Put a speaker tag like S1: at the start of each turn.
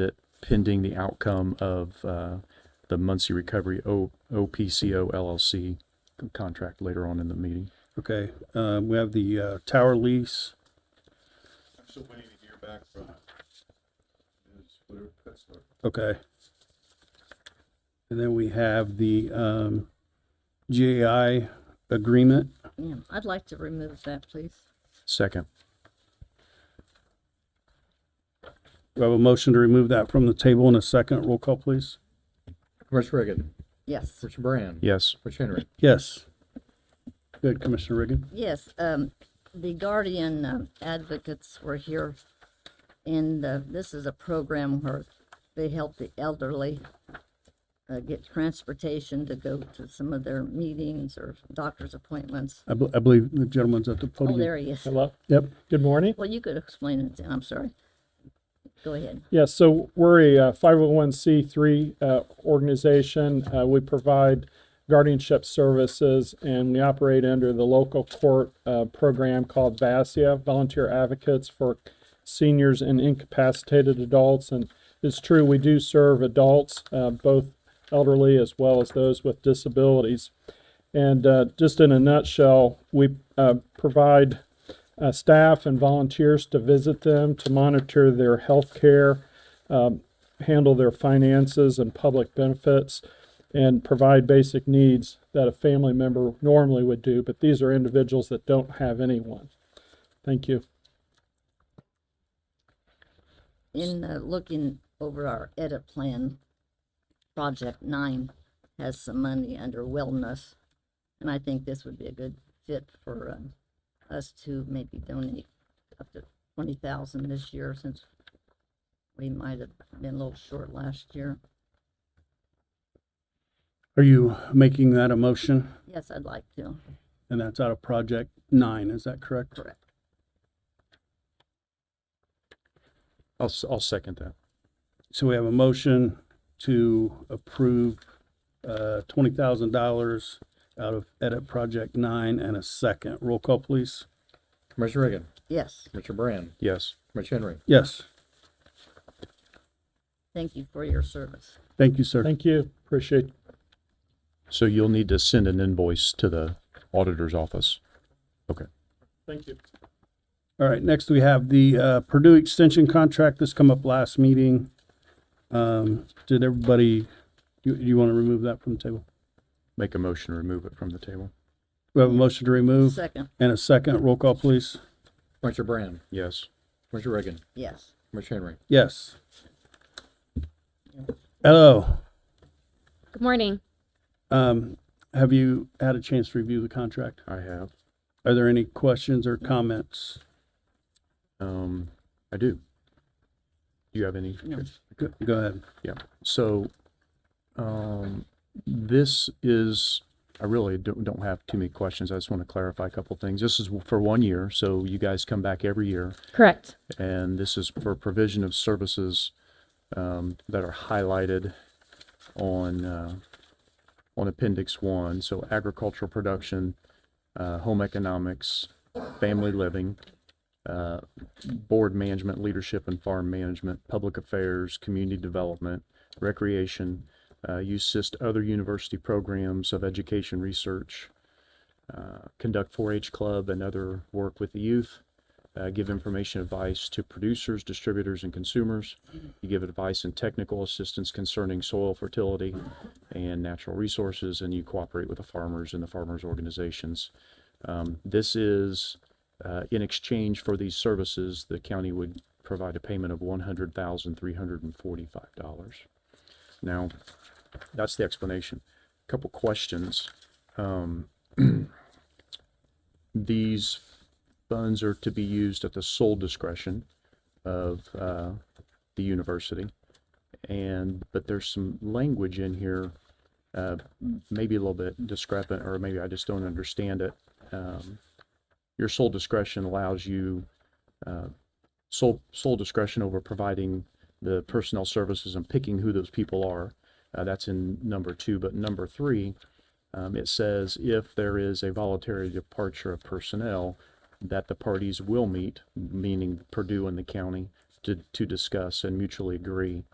S1: that pending the outcome of uh, the Muncie Recovery O- OPCO LLC contract later on in the meeting.
S2: Okay, um, we have the, uh, tower lease.
S3: I'm still waiting to hear back from is whatever Petzler.
S2: Okay. And then we have the, um, GAI agreement.
S4: Yeah, I'd like to remove that, please.
S1: Second,
S2: We have a motion to remove that from the table in a second. Roll call, please.
S5: Commissioner Reagan,
S4: Yes,
S5: Commissioner Brand,
S1: yes,
S5: Commissioner Henry,
S2: Yes. Good, Commissioner Reagan.
S4: yes. Um, the Guardian um, advocates were here, and uh, this is a program where they help the elderly uh, get transportation to go to some of their meetings or doctor's appointments.
S2: I, bel- I believe the gentleman's at the
S4: Oh,
S2: podium.
S4: there he is.
S6: Hello.
S2: Yep,
S6: Good morning.
S4: Well, you could explain it. I'm sorry. Go ahead.
S6: Yeah, so we're a uh, 501c3 uh, organization. Uh, we provide guardianship services and we operate under the local court uh, program called VASIA, Volunteer Advocates for Seniors and Incapacitated Adults. And it's true, we do serve adults, uh, both elderly as well as those with disabilities. And uh, just in a nutshell, we uh, provide uh, staff and volunteers to visit them, to monitor their health care, um, handle their finances and public benefits, and provide basic needs that a family member normally would do. But these are individuals that don't have anyone. Thank you.
S4: in uh, looking over our edit plan, Project Nine has some money under wellness, and I think this would be a good fit for um, us to maybe donate up to twenty thousand this year since we might have been a little short last year.
S2: are you making that a motion?
S4: Yes, I'd like to.
S2: And that's out of project nine, is that correct?
S4: Correct.
S1: I'll, s- I'll second that.
S2: So we have a motion to approve uh, $20,000 out of Edit Project 9 and a second. Roll call, please.
S5: Commissioner Reagan,
S4: Yes,
S5: Commissioner Brand,
S1: Yes,
S5: Commissioner Henry.
S2: Yes,
S4: thank you for your service.
S2: thank you, sir.
S6: Thank you. Appreciate
S1: so you'll need to send an invoice to the auditor's office. Okay,
S6: Thank you.
S2: All right, next we have the uh, Purdue Extension Contract. This come up last meeting. Um, Did everybody, you, you want to remove that from the table?
S1: make a motion, to remove it from the table.
S2: We have a motion to remove
S4: Second,
S2: and a second. Roll call, please.
S5: Commissioner Brand,
S1: Yes,
S5: Commissioner Reagan,
S4: yes.
S5: Commissioner Henry.
S2: Yes. Hello,
S7: Good morning.
S2: um, have you had a chance to review the contract?
S1: I have.
S2: Are there any questions or comments?
S1: Um, I do. Do you have any?
S2: Go go ahead.
S1: Yeah, so, um, this is, I really don't, don't have too many questions. I just want to clarify a couple things. This is for one year, so you guys come back every year.
S7: Correct.
S1: And this is for provision of services, um, that are highlighted on, uh, on appendix one. So agricultural production, uh, home economics, family living, uh, board management, leadership and farm management, public affairs, community development, recreation, uh, you assist other university programs of education research, uh, conduct 4-H club and other work with the youth, uh, give information advice to producers, distributors, and consumers. You give advice and technical assistance concerning soil fertility and natural resources, and you cooperate with the farmers and the farmers' organizations. Um, this is uh, in exchange for these services, the county would provide a payment of one hundred thousand three hundred and forty-five dollars. Now, that's the explanation. Couple questions. Um, these funds are to be used at the sole discretion of uh, the university, and but there's some language in here, uh, maybe a little bit discrepant, or maybe I just don't understand it. Um, your sole discretion allows you uh, sole sole discretion over providing the personnel services and picking who those people are. Uh, that's in number two, but number three, um, it says if there is a voluntary departure of personnel, that the parties will meet, meaning Purdue and the county, to, to discuss and mutually agree